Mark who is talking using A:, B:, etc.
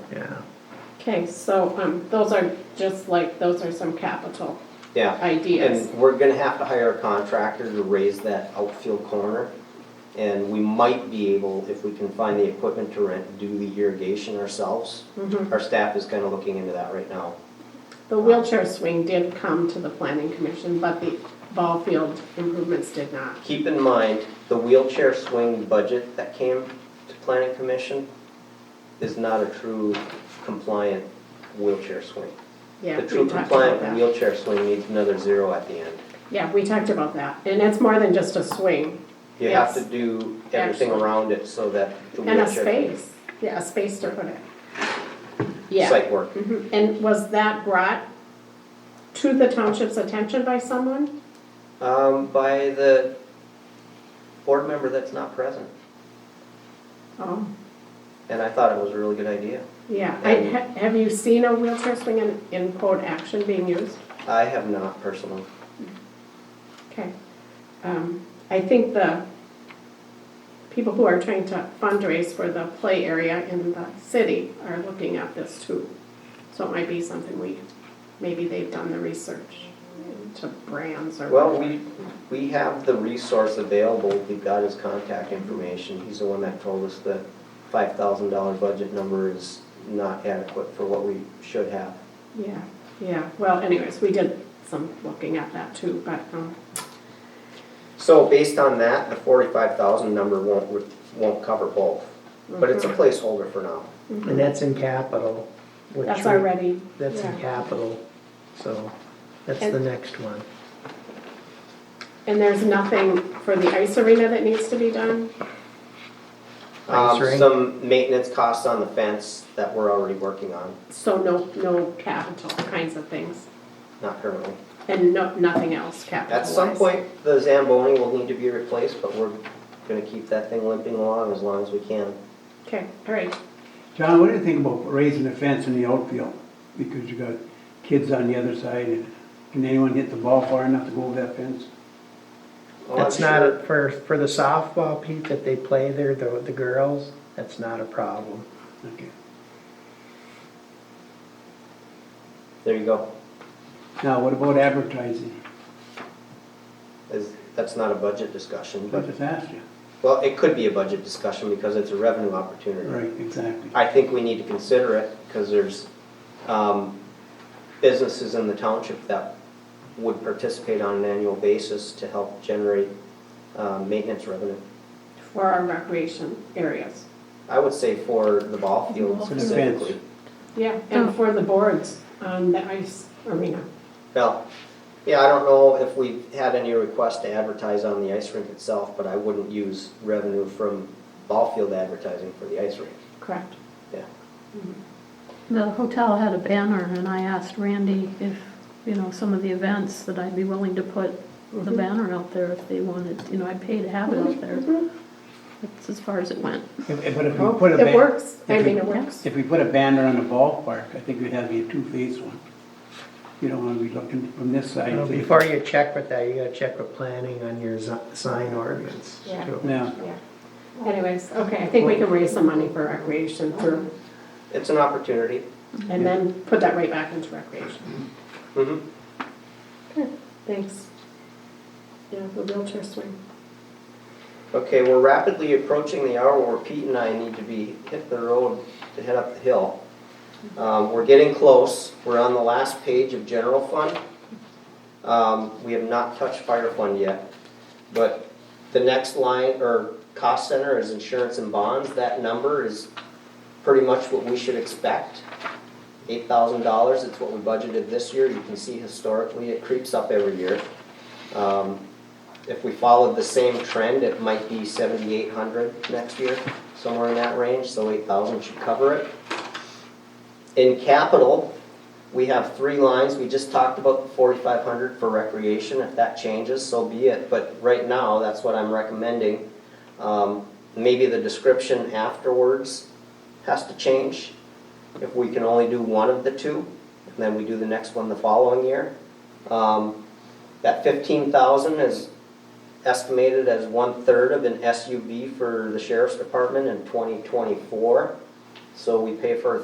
A: Okay, so, um, those are just like, those are some capital
B: Yeah.
A: ideas.
B: And we're gonna have to hire a contractor to raise that outfield corner. And we might be able, if we can find the equipment to rent, do the irrigation ourselves.
A: Mhm.
B: Our staff is kinda looking into that right now.
A: The wheelchair swing did come to the planning commission, but the ball field improvements did not.
B: Keep in mind, the wheelchair swing budget that came to planning commission is not a true compliant wheelchair swing.
A: Yeah,
B: The
A: we
B: true
A: talked about
B: compliant
A: that.
B: wheelchair swing needs another zero at the end.
A: Yeah, we talked about that, and it's more than just a swing,
B: You have to
A: Yes.
B: do everything
A: Excellent.
B: around it so that the
A: and
B: wheelchair.
A: a space, yeah, a space to put it. Yeah,
B: Site work.
A: Mhm. and was that brought to the township's attention by someone?
B: Um, by the board member that's not present,
A: Oh,
B: and I thought it was a really good idea.
A: yeah, I, ha- have you seen a wheelchair swing in, in code action being used?
B: I have not personally.
A: Okay. Um, I think the people who are trying to fundraise for the play area in the city are looking at this too. So it might be something we, maybe they've done the research to brands or.
B: Well, we, we have the resource available, we've got his contact information, he's the one that told us the five thousand dollar budget number is not adequate for what we should have.
A: Yeah, yeah. Well, anyways, we did some looking at that too, but, um,
B: So based on that, the forty-five thousand number won't, won't cover both, but it's a placeholder for now.
C: And that's in capital.
A: mhm.
C: which
A: that's
C: we-
A: already.
C: That's in
A: yeah.
C: capital, so that's
A: And-
C: the next one.
A: And there's nothing for the ice arena that needs to be done?
C: Ice
B: Um,
C: rink.
B: some maintenance costs on the fence that we're already working on,
A: So no, no capital kinds of things
B: not currently.
A: and no, nothing else capital
B: At some point, the Zamboni will need to be replaced, but we're gonna keep that thing limping along as long as we can.
A: Okay, all right.
D: John, what do you think about raising a fence in the outfield? Because you got kids on the other side, and can anyone hit the ball far enough to go over that fence?
B: Well, Oh, I'm
C: That's not,
B: sure-
C: a- for, for the softball, Pete, that they play there, the, the girls, that's not a problem.
D: Okay.
B: There you go.
D: Now, what about advertising?
B: Is, that's not a budget discussion,
D: I
B: but,
D: just asked you.
B: well, it could be a budget discussion because it's a revenue opportunity.
D: Right, exactly.
B: I think we need to consider it because there's, um, businesses in the township that would participate on an annual basis to help generate, um, maintenance revenue.
A: for our recreation areas.
B: I would say for the ball field
D: For the fence.
B: specifically.
A: Yeah, and for the boards on the ice arena.
B: Well, yeah, I don't know if we've had any requests to advertise on the ice rink itself, but I wouldn't use revenue from ball field advertising for the ice rink.
A: Correct.
B: Yeah.
E: The hotel had a banner, and I asked Randy if, you know, some of the events that I'd be willing to put the banner out there if they wanted, you know, I'd pay to have it
A: Mm-hmm,
E: out there. That's as far as it went.
D: If- if- But if we put a,
A: Oh, It
D: ban-
A: works. I mean, it works.
D: if we put a banner on the ballpark, I think it'd have to be a two-phase one. You don't want to be looking from this side.
C: You know,
D: to the-
C: Before you check with that, you gotta check with planning on your zi- sign ordinance.
A: Yeah.
C: too.
D: Yeah,
A: Yeah. Anyways, okay, I think we can raise some money for recreation through,
B: It's an opportunity.
A: and then put that right back into recreation.
B: Mhm.
A: Thanks. Yeah, the wheelchair swing.
B: Okay, we're rapidly approaching the hour where Pete and I need to be, hit the road to head up the hill. Um, We're getting close. We're on the last page of general fund. Um, We have not touched fire fund yet. But the next line, or cost center, is insurance and bonds. That number is pretty much what we should expect. Eight thousand dollars, it's what we budgeted this year. You can see historically, it creeps up every year. Um, If we followed the same trend, it might be seventy-eight hundred next year, somewhere in that range, so eight thousand should cover it. In capital, we have three lines, we just talked about the forty-five hundred for recreation, if that changes, so be it, but right now, that's what I'm recommending. Um, maybe the description afterwards has to change, if we can only do one of the two, and then we do the next one the following year. Um, that fifteen thousand is estimated as one-third of an SUV for the sheriff's department in twenty twenty-four, so we pay for a